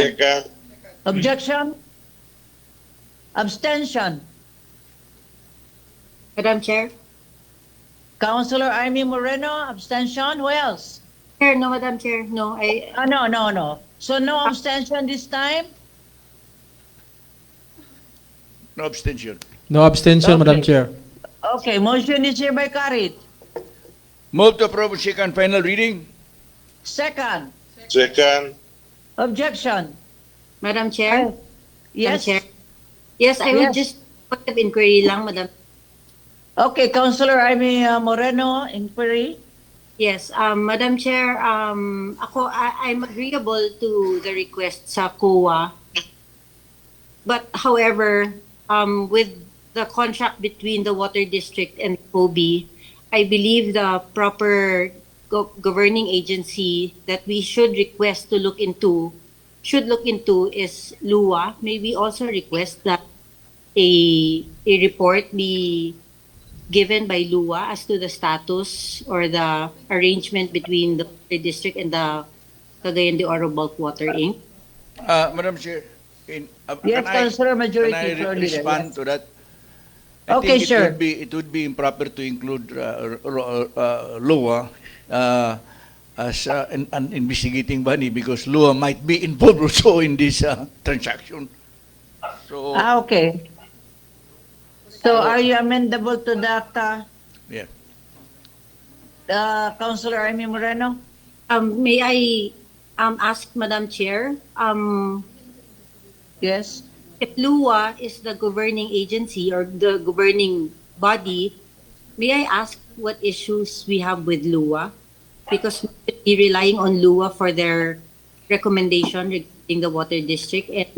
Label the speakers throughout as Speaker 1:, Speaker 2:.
Speaker 1: Second.
Speaker 2: Objection? Abstention?
Speaker 3: Madam Chair?
Speaker 2: Councilor Amy Moreno, abstention? Who else?
Speaker 3: Chair, no, Madam Chair, no. I,
Speaker 2: Ah, no, no, no. So no abstention this time?
Speaker 4: No abstention.
Speaker 5: No abstention, Madam
Speaker 2: Okay.
Speaker 5: Chair.
Speaker 2: Okay, motion is hereby carried.
Speaker 4: Move to approve second final reading.
Speaker 2: Second,
Speaker 1: Second.
Speaker 2: objection?
Speaker 3: Madam Chair?
Speaker 2: Oh,
Speaker 3: Madam
Speaker 2: Yes?
Speaker 3: Chair? Yes, I would
Speaker 2: Yes.
Speaker 3: just, point of inquiry lang, Madam.
Speaker 2: Okay, Councilor Amy uh, Moreno, inquiry?
Speaker 3: Yes, um, Madam Chair, um, ako, I, I'm agreeable to the request sa COA. But however, um, with the contract between the Water District and POBI, I believe the proper go- governing agency that we should request to look into, should look into is LUA. May we also request that a, a report be given by LUA as to the status or the arrangement between the Water district and the Cagayan de Oro Bulk Water Inc.
Speaker 4: Uh, Madam Chair, in, uh,
Speaker 2: Yes,
Speaker 4: can I,
Speaker 2: Councilor
Speaker 4: can
Speaker 2: Majority
Speaker 4: I
Speaker 2: Floor
Speaker 4: re-
Speaker 2: Leader.
Speaker 4: respond to that?
Speaker 2: Okay,
Speaker 4: think
Speaker 2: sure.
Speaker 4: It would be, it would be improper to include uh, r- r- uh, LOA uh, as uh, an, an investigating body because LOA might be involved also in this uh, transaction. So,
Speaker 2: Ah, okay. So are you amendable to that, uh,
Speaker 4: yeah.
Speaker 2: uh, Councilor Amy Moreno?
Speaker 3: Um, may I um, ask Madam Chair, um,
Speaker 2: Yes?
Speaker 3: if LUA is the governing agency or the governing body, may I ask what issues we have with LUA? Because we should be relying on LUA for their recommendation regarding the Water District and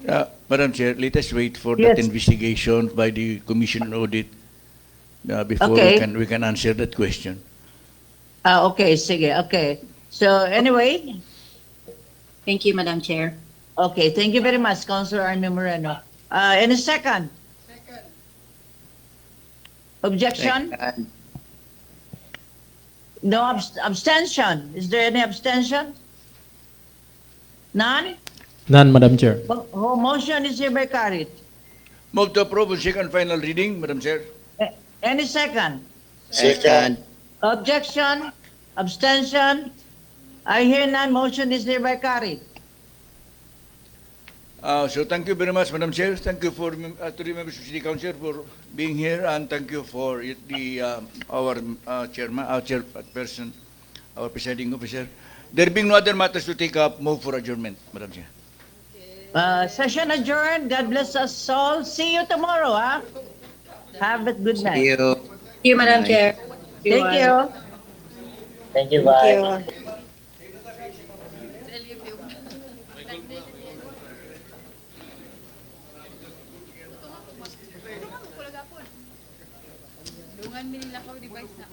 Speaker 4: Uh, Madam Chair, let us wait for
Speaker 2: Yes.
Speaker 4: that investigation by the Commission audit uh, before
Speaker 2: Okay.
Speaker 4: we can we can answer that question.
Speaker 2: Ah, okay, sige, okay. So anyway,
Speaker 3: thank you, Madam Chair.
Speaker 2: Okay, thank you very much, Councilor Army Moreno. Uh, any second? Objection? No abs- abstention? Is there any abstention? None?
Speaker 5: None, Madam Chair.
Speaker 2: Mo- oh, motion is hereby carried.
Speaker 4: Move to approve on second final reading, Madam Chair.
Speaker 2: A- Any second?
Speaker 1: Second.
Speaker 2: Objection? Abstention? I hear none, motion is hereby carried.
Speaker 4: Uh, so thank you very much, Madam Chair. Thank you for mem- uh, to the members of City Council for being here, and thank you for it- the um, our uh, chairman, our chairperson, our presiding officer. There being no other matters to take up, move for adjournment, Madam Chair.
Speaker 2: Uh, session adjourned, God bless us all, see you tomorrow, ah. Have a good night.
Speaker 6: you.
Speaker 3: Thank you, Madam Chair.
Speaker 2: Thank
Speaker 3: Everyone.
Speaker 2: you.
Speaker 6: Thank you, bye.
Speaker 7: Dungan minilakaw device na.